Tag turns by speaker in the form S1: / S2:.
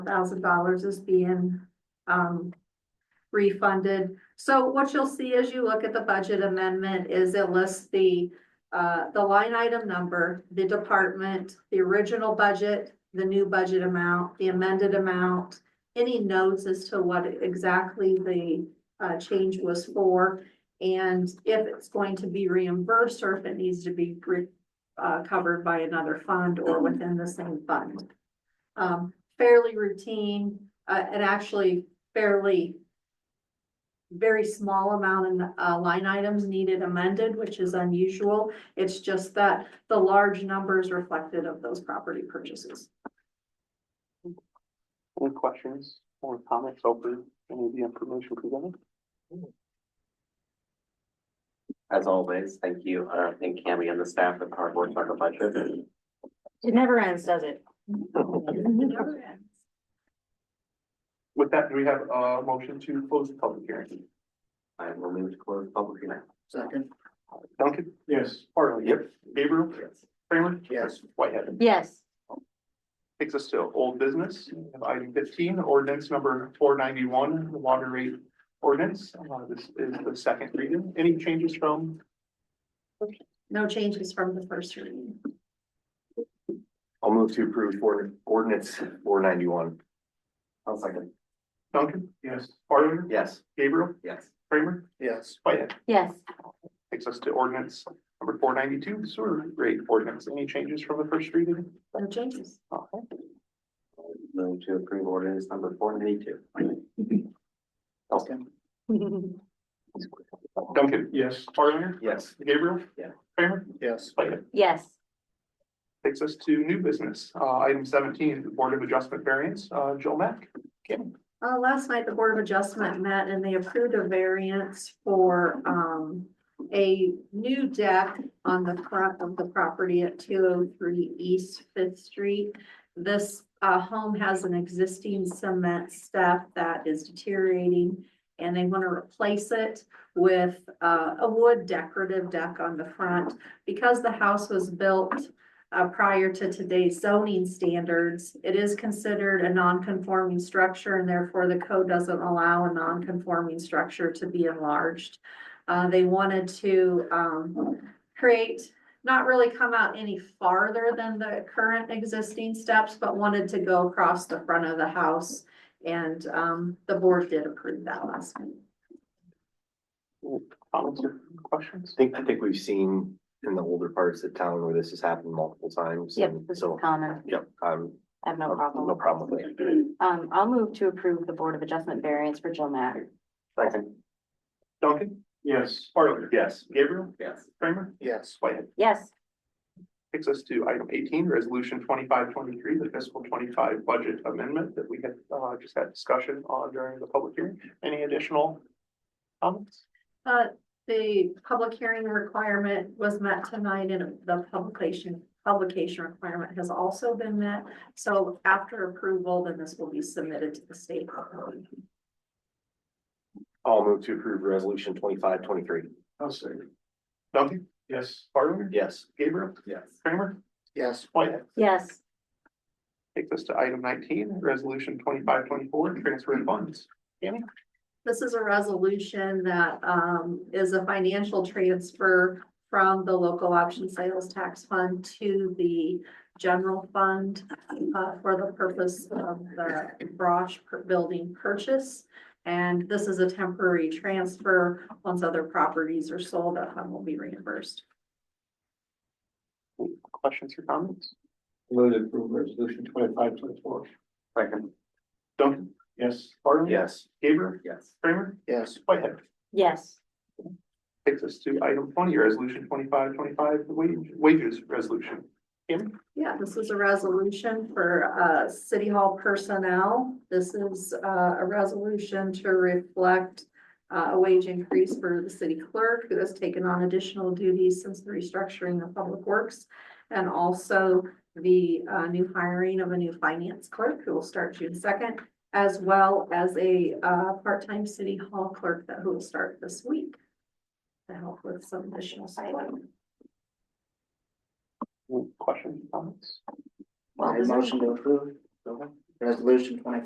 S1: thousand dollars is being, um, refunded. So what you'll see as you look at the budget amendment is it lists the, uh, the line item number, the department, the original budget, the new budget amount, the amended amount, any notes as to what exactly the, uh, change was for, and if it's going to be reimbursed or if it needs to be re- uh, covered by another fund or within the same fund. Um, fairly routine, uh, and actually fairly very small amount in, uh, line items needed amended, which is unusual. It's just that the large numbers reflected of those property purchases.
S2: Any questions or comments over any of the information presented?
S3: As always, thank you, uh, thank Cammy and the staff at hard work on the budget.
S4: It never ends, does it?
S1: Mm-hmm.
S2: With that, do we have a motion to close the public hearing?
S3: I will move to close public hearing.
S5: Second.
S2: Duncan?
S5: Yes.
S2: Harley?
S3: Yep.
S2: Gabriel? Kramer?
S5: Yes.
S2: Whitehead?
S4: Yes,
S2: Takes us to old business, We have item fifteen, ordinance number four ninety-one, water rate ordinance. Uh, this is the second reading. Any changes from
S1: No changes from the first reading.
S6: I'll move to approve for ordinance four ninety-one.
S3: I'll second.
S2: Duncan? Yes. Harley?
S6: Yes.
S2: Gabriel?
S3: Yes.
S2: Kramer?
S5: Yes.
S2: Whitehead?
S4: yes,
S2: Takes us to ordinance number four ninety-two, sewer rate ordinance. Any changes from the first reading?
S1: No changes.
S2: Okay.
S3: Move to approve ordinance number four ninety-two.
S2: Duncan? Yes. Harley?
S6: Yes.
S2: Gabriel?
S3: Yeah.
S2: Kramer?
S5: Yes.
S2: Whitehead?
S4: yes,
S2: Takes us to new business, uh, item seventeen, Board of Adjustment variance, uh, Joe Mack. Kim?
S1: Uh, last night, the Board of Adjustment met and they approved a variance for, um, a new deck on the front of the property at two oh three East Fifth Street. This, uh, home has an existing cement step that is deteriorating and they want to replace it with, uh, a wood decorative deck on the front. Because the house was built uh, prior to today's zoning standards, it is considered a non-conforming structure and therefore the code doesn't allow a non-conforming structure to be enlarged. Uh, they wanted to, um, create, not really come out any farther than the current existing steps, but wanted to go across the front of the house. And, um, the board did approve that last week.
S2: Comments or questions?
S6: I think, I think we've seen in the older parts of town where this has happened multiple times.
S4: yep,
S6: and
S4: this is
S6: So,
S4: common.
S6: yep, um,
S4: I have no problem.
S6: no problem with it.
S4: Um, I'll move to approve the Board of Adjustment variance for Jill Mack.
S3: Second.
S2: Duncan? Yes. Harley?
S6: Yes.
S2: Gabriel?
S3: Yes.
S2: Kramer?
S5: Yes.
S2: Whitehead?
S4: Yes,
S2: Takes us to item eighteen, Resolution twenty-five twenty-three, the fiscal twenty-five budget amendment that we had, uh, just had discussion on during the public hearing. Any additional comments?
S1: Uh, the public hearing requirement was met tonight and the publication, publication requirement has also been met. So after approval, then this will be submitted to the state.
S6: I'll move to approve resolution twenty-five twenty-three.
S2: I'll say. Duncan? Yes. Harley?
S6: Yes.
S2: Gabriel?
S3: Yes.
S2: Kramer?
S5: Yes.
S2: Whitehead?
S4: yes,
S2: Takes us to item nineteen, resolution twenty-five twenty-four, transfer of funds.
S1: This is a resolution that um is a financial transfer from the local option sales tax fund to the general fund uh, for the purpose of the Brosh per- building purchase. And this is a temporary transfer. Once other properties are sold, that fund will be reimbursed.
S2: Questions or comments?
S5: Move to approve resolution twenty-five twenty-four.
S3: Second.
S2: Duncan? Yes. Harley?
S6: Yes.
S2: Gabriel?
S3: Yes.
S2: Kramer?
S5: Yes.
S2: Whitehead?
S4: yes,
S2: Takes us to item twenty, resolution twenty-five twenty-five, the wage, wages resolution. Kim?
S1: Yeah, this is a resolution for uh city hall personnel. This is uh a resolution to reflect. Uh, a wage increase for the city clerk who has taken on additional duties since the restructuring of public works. And also the uh new hiring of a new finance clerk who will start June second. As well as a uh part-time city hall clerk that who will start this week. To help with some additional support.
S2: Questions, comments?
S4: Well,
S5: I motion to approve. Resolution twenty